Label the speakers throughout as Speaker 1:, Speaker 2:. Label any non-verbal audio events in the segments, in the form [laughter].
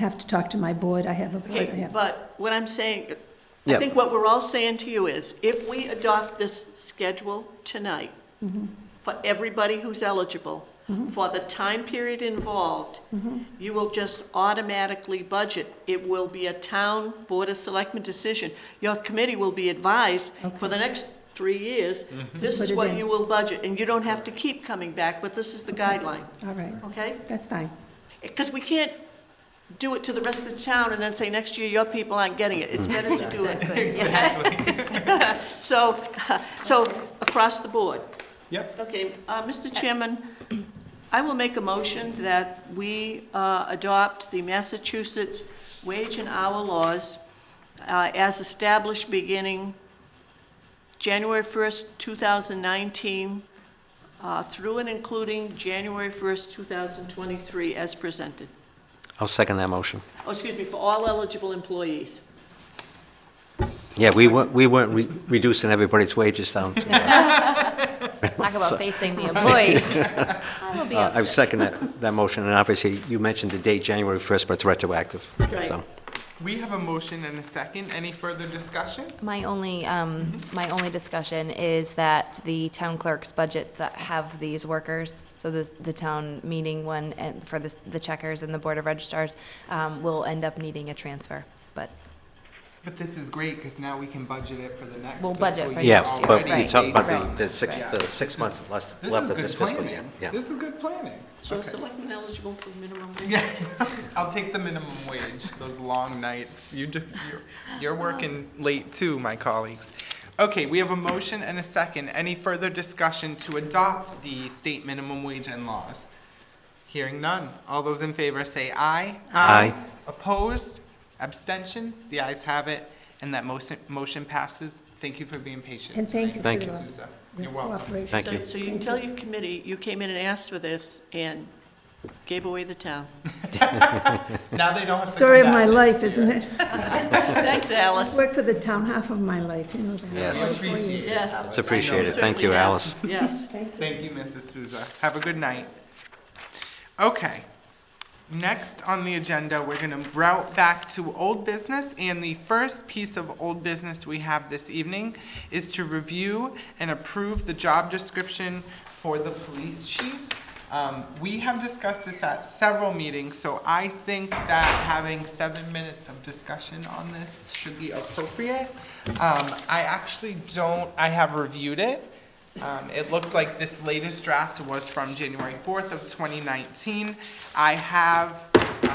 Speaker 1: have to talk to my board, I have a board, I
Speaker 2: Okay,
Speaker 1: have.
Speaker 2: but what I'm saying, I
Speaker 3: Yeah.
Speaker 2: think what we're all saying to you is, if we adopt this schedule tonight,
Speaker 1: Mm-hmm.
Speaker 2: for everybody who's eligible, for the time period involved,
Speaker 1: Mm-hmm.
Speaker 2: you will just automatically budget. It will be a town Board of Selectmen decision. Your committee will be advised for the next three years, this
Speaker 1: Put
Speaker 2: is
Speaker 1: it
Speaker 2: what
Speaker 1: in.
Speaker 2: you will budget, and you don't have to keep coming back, but this is the guideline,
Speaker 1: All right,
Speaker 2: okay?
Speaker 1: that's fine.
Speaker 2: Because we can't do it to the rest of the town and then say, next year, your people aren't getting it. It's better to do it. Exactly. [laughs] So, so across the board.
Speaker 4: Yep.
Speaker 2: Okay, uh, Mr. Chairman, I will make a motion that we uh, adopt the Massachusetts wage and hour laws uh, as established beginning January 1st, 2019, uh, through and including January 1st, 2023, as presented.
Speaker 3: I'll second that motion.
Speaker 2: Oh, excuse me, for all eligible employees.
Speaker 3: Yeah, we weren't, we weren't re- reducing everybody's wages down. to- uh,
Speaker 5: Talk about
Speaker 3: [laughs]
Speaker 5: facing the employees. I will be
Speaker 3: Uh, I
Speaker 5: upset.
Speaker 3: second that, that motion, and obviously, you mentioned the date, January 1st, but it's retroactive.
Speaker 2: Right.
Speaker 3: So,
Speaker 4: We have a motion and a second. Any further discussion?
Speaker 5: My only, um, my only discussion is that the town clerk's budget that have these workers, so the, the town meeting one and for the, the checkers and the board of registrars, um, will end up needing a transfer, but
Speaker 4: But this is great because now we can budget it for the next.
Speaker 5: We'll budget
Speaker 4: fiscal
Speaker 5: for
Speaker 4: year
Speaker 3: Yeah,
Speaker 5: next year,
Speaker 3: but
Speaker 4: already
Speaker 3: you talk about
Speaker 4: based
Speaker 3: the-
Speaker 4: on
Speaker 3: the
Speaker 4: this.
Speaker 3: six-
Speaker 4: Yeah.
Speaker 3: the six
Speaker 4: This is-
Speaker 3: months left-
Speaker 4: this
Speaker 3: left
Speaker 4: is
Speaker 3: of
Speaker 4: good
Speaker 3: this fiscal year.
Speaker 4: planning.
Speaker 3: Yeah.
Speaker 4: This is good planning.
Speaker 2: So
Speaker 4: Okay.
Speaker 2: selectmen eligible for minimum wage.
Speaker 4: Yeah, I'll take the minimum wage, those long nights. You do, you're, you're working late too, my colleagues. Okay, we have a motion and a second. Any further discussion to adopt the state minimum wage and laws? Hearing none. All those in favor say aye.
Speaker 3: Aye.
Speaker 4: Opposed? Abstentions? The ayes have it, and that motion, motion passes. Thank you for being patient.
Speaker 1: And thank you for
Speaker 3: Thank you.
Speaker 1: your
Speaker 4: Souza. You're
Speaker 1: your
Speaker 4: welcome.
Speaker 1: cooperation.
Speaker 3: Thank
Speaker 2: So-
Speaker 3: you.
Speaker 2: So you can tell your committee, you came in and asked for this and gave away the
Speaker 3: [laughs]
Speaker 2: town.
Speaker 4: Now they don't have to come
Speaker 1: Story of
Speaker 4: back
Speaker 1: my
Speaker 4: next
Speaker 1: life,
Speaker 4: year.
Speaker 1: isn't it?
Speaker 2: Thanks,
Speaker 1: I've
Speaker 2: Alice.
Speaker 1: worked for the town half of my life, you know that.
Speaker 3: Yes.
Speaker 4: I appreciate it.
Speaker 2: Yes.
Speaker 4: Alice.
Speaker 3: It's
Speaker 4: I know
Speaker 3: appreciated.
Speaker 4: it's-
Speaker 3: Thank you,
Speaker 2: Certainly have.
Speaker 3: Alice.
Speaker 2: Yes.
Speaker 1: Thank you.
Speaker 4: Thank you, Mrs. Souza. Have a good night. Okay. Next on the agenda, we're going to route back to old business, and the first piece of old business we have this evening is to review and approve the job description for the police chief. Um, We have discussed this at several meetings, so I think that having seven minutes of discussion on this should be appropriate. Um, I actually don't, I have reviewed it, um, It looks like this latest draft was from January 4th of 2019. I have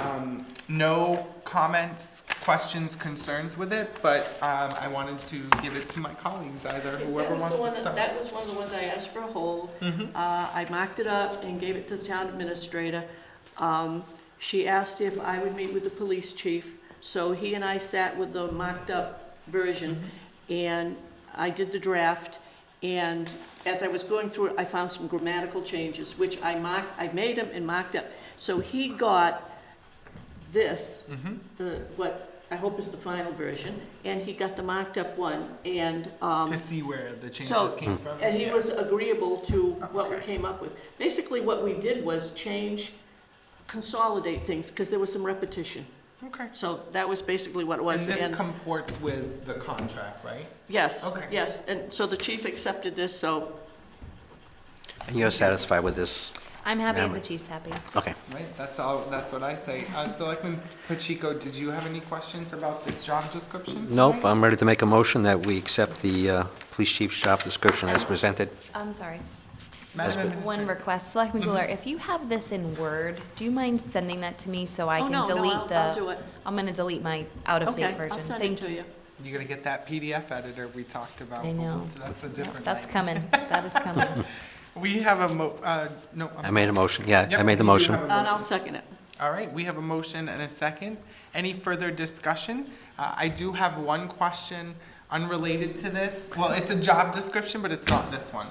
Speaker 4: um, no comments, questions, concerns with it, but um, I wanted to give it to my colleagues, either
Speaker 2: That
Speaker 4: whoever
Speaker 2: was the
Speaker 4: wants to
Speaker 2: one, that that
Speaker 4: start. Mm-hmm.
Speaker 2: was one of the ones I asked for a hold. Uh, I mocked it up and gave it to the town administrator. Um, She asked if I would meet with the police chief, so he and I sat with the mocked-up version,
Speaker 4: Mm-hmm.
Speaker 2: and I did the draft, and as I was going through it, I found some grammatical changes, which I mocked, I made them and mocked up. So he got this,
Speaker 4: Mm-hmm.
Speaker 2: the, what I hope is the final version, and he got the mocked-up one, and, um,
Speaker 4: To see where the
Speaker 2: so,
Speaker 4: changes came from.
Speaker 2: and he
Speaker 4: Yeah.
Speaker 2: was agreeable to what we
Speaker 4: Okay.
Speaker 2: came up with. Basically, what we did was change, consolidate things, because there was some repetition.
Speaker 4: Okay.
Speaker 2: So that was basically what it
Speaker 4: And
Speaker 2: was.
Speaker 4: this
Speaker 2: And,
Speaker 4: comports with the contract, right?
Speaker 2: yes,
Speaker 4: Okay.
Speaker 2: yes. And so the chief accepted this, so,
Speaker 3: And you're satisfied with this?
Speaker 5: I'm happy if
Speaker 3: Ma'am.
Speaker 5: the chief's happy.
Speaker 3: Okay.
Speaker 4: Right, that's all, that's what I say. Uh, Selectman Pacheco, did you have any questions about this job description?
Speaker 3: Nope,
Speaker 4: tonight?
Speaker 3: I'm ready to make a motion that we accept the uh, police chief's job description as presented.
Speaker 5: I'm sorry.
Speaker 4: Madam
Speaker 5: One
Speaker 4: Administrator.
Speaker 2: [laughs]
Speaker 5: request, Selectman Goulart, if you have this in Word, do you mind sending that to me so I
Speaker 2: Oh,
Speaker 5: can
Speaker 2: no, no,
Speaker 5: delete the?
Speaker 2: I'll- I'll do it.
Speaker 5: I'm gonna delete my out-of-date
Speaker 2: okay,
Speaker 5: version.
Speaker 2: I'll send it
Speaker 5: Thank
Speaker 2: to you.
Speaker 4: You gotta get that PDF editor we talked about.
Speaker 5: I know.
Speaker 4: So That's a
Speaker 5: Yep,
Speaker 4: different
Speaker 5: That's
Speaker 4: thing.
Speaker 5: coming, that is coming.
Speaker 4: We have a mo, uh, no. I'm
Speaker 3: I made a
Speaker 4: sorry.
Speaker 3: motion, yeah, I
Speaker 4: Yep,
Speaker 3: made
Speaker 4: you do
Speaker 3: the motion.
Speaker 4: have a
Speaker 2: And I'll second it.
Speaker 4: All right, we have a motion and a second. Any further discussion? Uh, I do have one question unrelated to this. Well, it's a job description, but it's not this one.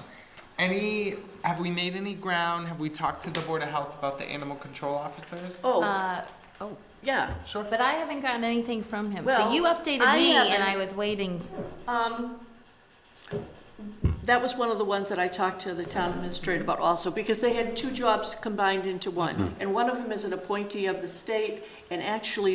Speaker 4: Any, have we made any ground? Have we talked to the Board of Health about the animal control officers?
Speaker 2: Oh,
Speaker 5: Uh, oh,
Speaker 2: yeah.
Speaker 4: Sure.
Speaker 5: but I haven't gotten anything from him. So
Speaker 2: Well,
Speaker 5: you updated
Speaker 2: I
Speaker 5: me and
Speaker 2: haven't-
Speaker 5: I was waiting.
Speaker 2: Um, that was one of the ones that I talked to the town administrator about also, because
Speaker 4: Mm-hmm.
Speaker 2: they had two jobs combined into one. And one of them is an appointee of the state, and actually,